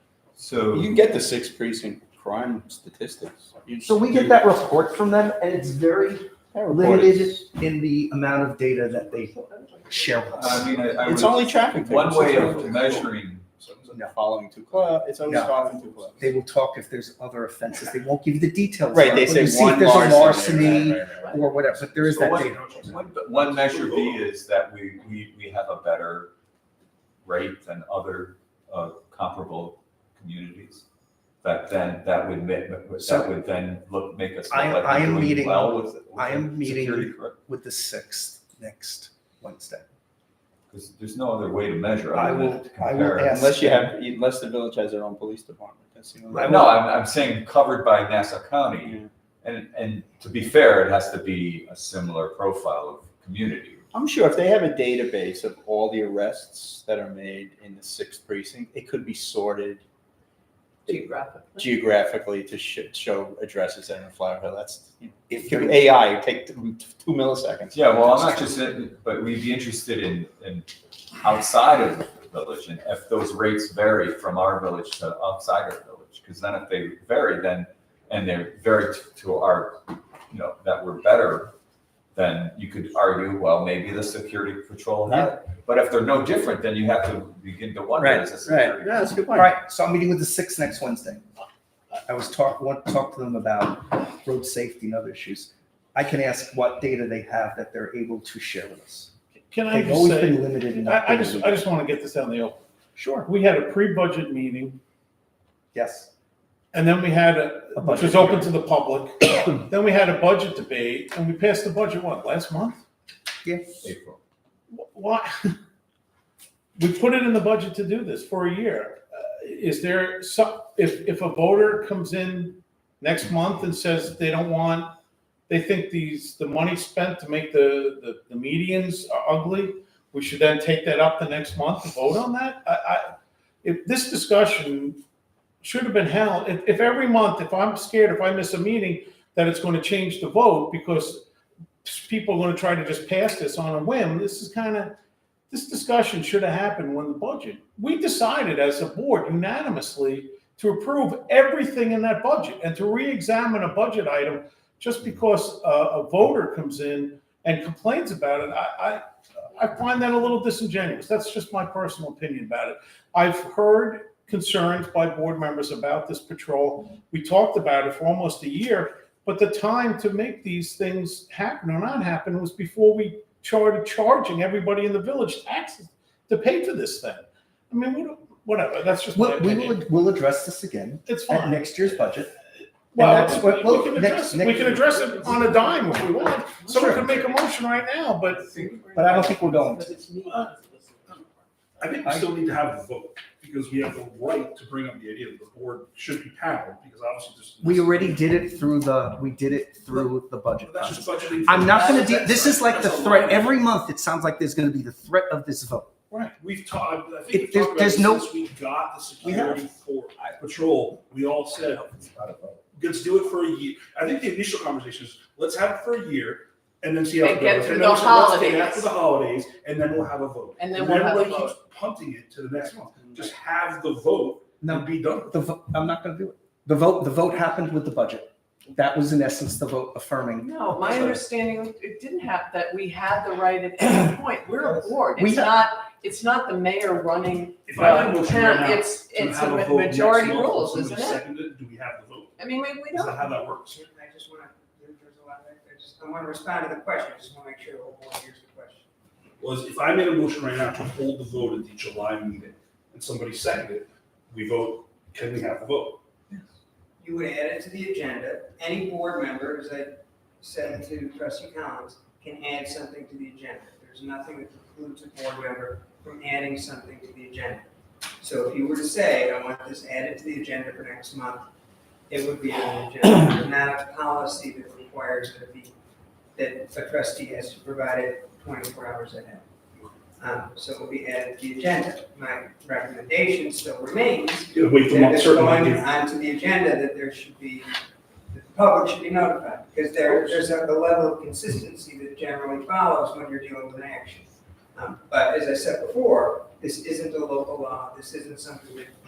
You So, can get the six precinct crime statistics. You So we just get do- that report from them, and it's very that report limited is- in the amount of data that they share with I us. mean, I I It's would, only traffic. one tickets. way of measuring, No. Following two club, it's always No. following two clubs. They will talk if there's other offenses. They won't give you the details. Right, on they it, but say you see if one there's a larceny. larceny right, right, right. or whatever, but there is So that what- data. one, one measure B is that we, we, we have a better rate than other uh, comparable communities. That then, that would, ma- that So- would then look, make us I look like am- I am we're doing meeting- well with. with I am meeting- security correct? With the sixth next Wednesday. Because there's no other way to measure I other than will- to I will compare. ask- Unless you have, unless the village has their own police department. That's the only I way. No, I'm, I'm saying covered by Nassau County. Yeah. And, and to be fair, it has to be a similar profile of community. I'm sure if they have a database of all the arrests that are made in the sixth precinct, it could be sorted Geographically. geographically to sh- show addresses that are in Flower Hill. That's, it could be AI, it'd take two two milliseconds. Yeah, well, I'm not just, in- but we'd be interested in, in outside of the village and if those rates vary from our village to outside our village. Because then if they vary, then, and they're very t- to our, you know, that we're better, then you could argue, well, maybe the security patrol had it. But if they're no different, then you have to begin to wonder, Right, is the security? Yeah, that's a good All point. right, so I'm meeting with the sixth next Wednesday. I was talk, want to talk to them about road safety and other issues. I can ask what data they have that they're able to share with us. Can I They've just always say, been limited in not I, I being just, able I to- just want to get this out in the open. Sure, We had a pre-budget meeting yes. and then we had a, A which budget was open to the public. Then we had a budget debate and we passed the budget, what, last month? April. Wh- Why? We put it in the budget to do this for a year. Uh, Is there some, if, if a voter comes in next month and says they don't want, they think these, the money spent to make the, the, the medians are ugly, we should then take that up the next month and vote on that? I, I, if this discussion should have been held, if, if every month, if I'm scared, if I miss a meeting, that it's gonna change the vote because people are gonna try to just pass this on a whim, this is kind of, this discussion should have happened when the budget, we decided as a board unanimously to approve everything in that budget and to reexamine a budget item just because a, a voter comes in and complains about it, I, I, I find that a little disingenuous. That's just my personal opinion about it. I've heard concerns by board members about this patrol. We talked about it for almost a year, but the time to make these things happen or not happen was before we started charging everybody in the village taxes to pay for this thing. I mean, what- whatever, that's just my We'll- We opinion. will, we'll address this again It's at fine. next year's budget. Well, And that's what- we- well, we can next- address, it. next- we can address it on a dime if we want. Someone Sure. could make a motion right now, but But I don't think we're going But it's me. I think we still need to have the vote, because we have the right to bring up the idea that the board should be paneled, because obviously there's. We already did it through the, we did it through the budget But That's process. just budgeting. I'm not gonna do, this is like the That's a threat, lot. every month it sounds like there's gonna be the threat of this vote. Right, we've talked, I It- think we've there- talked about there's this no- since we got the We have. security for patrol, we all said, let's do it for a year. I think the initial conversation is, let's have it for a year, and then see how it And get goes. through And then the we said, let's get After holidays. the holidays, and then we'll have a vote. And then we'll have a everybody keeps Punting it to the next month, just have the vote and No, be done with it. the, vo- I'm not gonna do it. The vote, the vote happened with the budget. That was in essence the vote affirming. No, my understanding, it didn't have, that we had the right at any point. We're a board. We It's have- not, it's not the mayor running If I the have a motion right town. now It's, to it's a have a ma- vote next majority month, will rules, somebody isn't it? second Do we have the vote? I mean, we, we Is don't. that how that works? I just want to, there's a lot, I just, I want to respond to the question, I just want to make sure the whole board hears the question. Was if I made a motion right now to hold the vote at the July meeting and somebody seconded it, we vote, can we have the vote? You would add it to the agenda, any board member, as I said to trustee Collins, can add something to the agenda. There's nothing that precludes a board member from adding something to the agenda. So if you were to say, I want this added to the agenda for next month, it would be on the agenda, There's not a policy that requires that it be, that a trustee has to provide it twenty-four hours ahead. Um, so it will be added to the agenda. My recommendation still remains Yeah, Wait for that month it's going certainly. onto the agenda, that there should be, that the public should be notified, because there, there's a a level of consistency that generally follows when you're dealing with an action. Um, But as I said before, this isn't a local law, this isn't something that